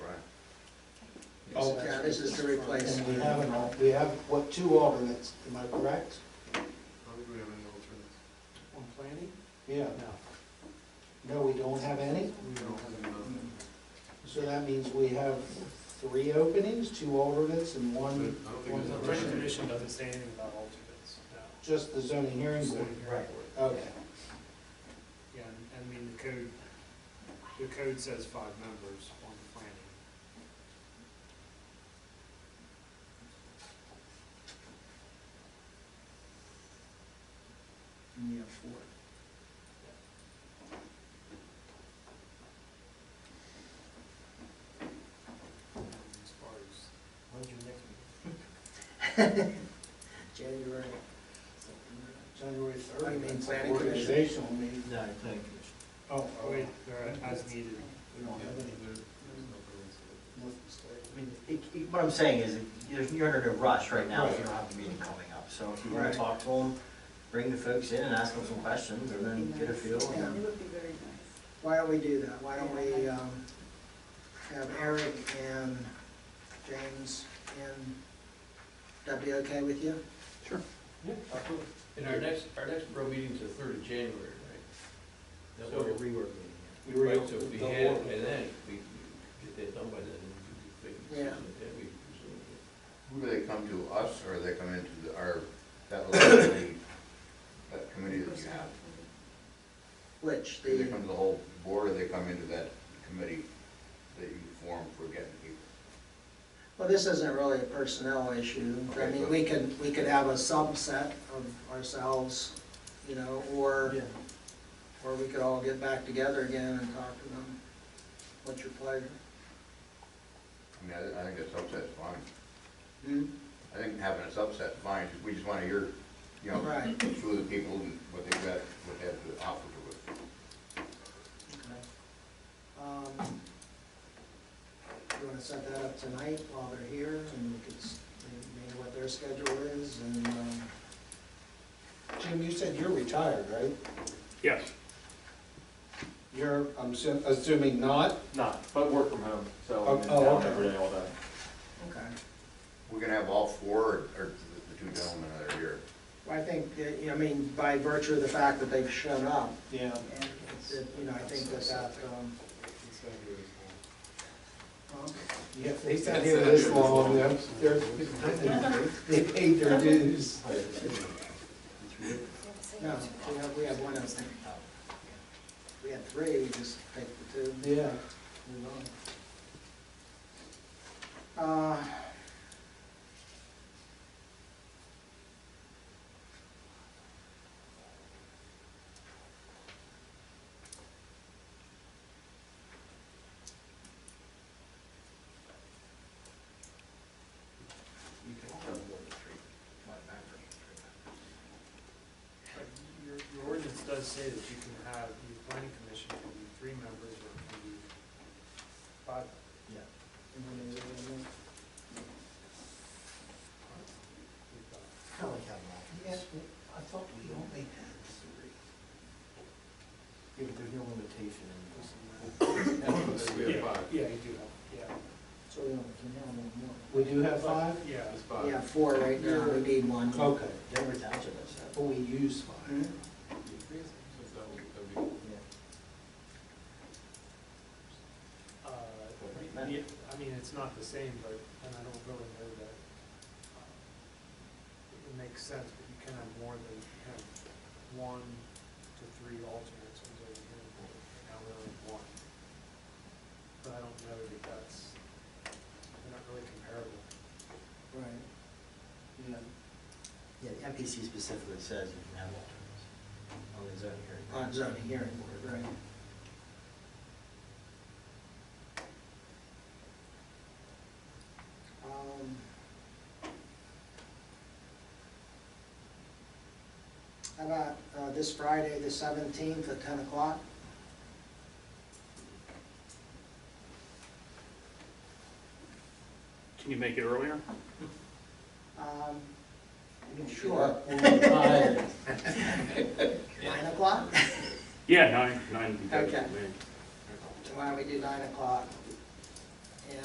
Oh, yeah, this is to replace. And we have an, al- we have, what, two alternates, am I correct? I don't think we have any alternates. On planning? Yeah. No, we don't have any, We don't have any. so that means we have three openings, two alternates and I one, don't Well, think the there's. planning a- commission doesn't say anything about alternates, no. just the zoning hearing board. Right. Okay, Yeah, and, and I mean, the code, the code says five members on the planning. And we have four. um, As far as, when's your next meeting? January. January third. I mean, that's an planning commission. Organizational meeting. No, planning commission. Oh, Oh, Wait, or as needed. we don't Yeah, have any. there- there's no alternates. I mean, it- it- what I'm saying is, you're- you're under no rush right now, if you Right. don't have a meeting coming up. So if you want Right. to talk to them, bring the folks in and ask them some questions, and then get a feel. nice. and- Yeah. It would be very nice. Why don't we do that? Why don't we, um, have Eric and James in? That be okay with you? And our next, our next real meeting's the third of January, right? That we're a rework meeting. We were- Right, so if we the had, order. by then, we get that done by then, and we could make a decision at that meeting, presumably. Who do they come to, us, or they come into the- our, that little committee, that committee that you have? Which, Do they the, come to the whole board, or they come into that committee that you form for getting people? well, this isn't really a personnel issue. I mean, we can, we could have a subset of ourselves, you know, or, or we could all get back together again and talk to them. What's your pleasure? I mean, I, I think a subset's fine. Hmm? I think having a subset's fine, we just wanna hear, you know, Right. who the people, and what they've got, what they have to offer to us. Um, You want to set that up tonight while they're here, and we could, s- maybe what their schedule is, and, um, Jim, you said you're retired, right? Yes, You're, I'm assu- assuming not? Not, but work from home, so I'm in Oh, oh, town okay. every day all day. okay. We're gonna have all four, or, or the two gentlemen that are here? Well, I think, that, you know, I mean, by virtue of the fact that they've shown up, Yeah. and, that, you know, I think that that, um, It's not here as well. well, Yeah, they sat here this long, they're, they're- they paid their dues. no, we have, we have one of them. We had three, we just picked the two. Yeah. Uh, You can come to the three, my background. But Your, your ordinance does say that you can have, your planning commission can be three members or it can be five. Yeah. and then there's another one. We've got- I like having alternates. I thought we only had Yeah, but there's no limitation in Then we have five. Yeah, you do have, yeah. So we only can have one We do have five? Yeah. It's more. five. We have four right now, we need one. Okay. Denver Township has that. But we use five. Mm-hmm. Hmm? So that would- that'd be- Yeah. Uh, Right. yeah, I mean, it's not the same, but, and I don't really know that, um, it makes sense, but you can have more than, you can have one to three alternates on the zoning board, and now we're only one. But I don't know that that's, they're not really comparable. Right. Yeah. Yeah, the MPC specifically says you can have alternates on the zoning hearing. board. On zoning hearing board, right. Um, How about uh, this Friday, the seventeenth at ten o'clock? can you make it earlier? Um, Sure. Five. Nine o'clock? Yeah, nine, nine would be better Okay. for me. Why don't we do nine o'clock?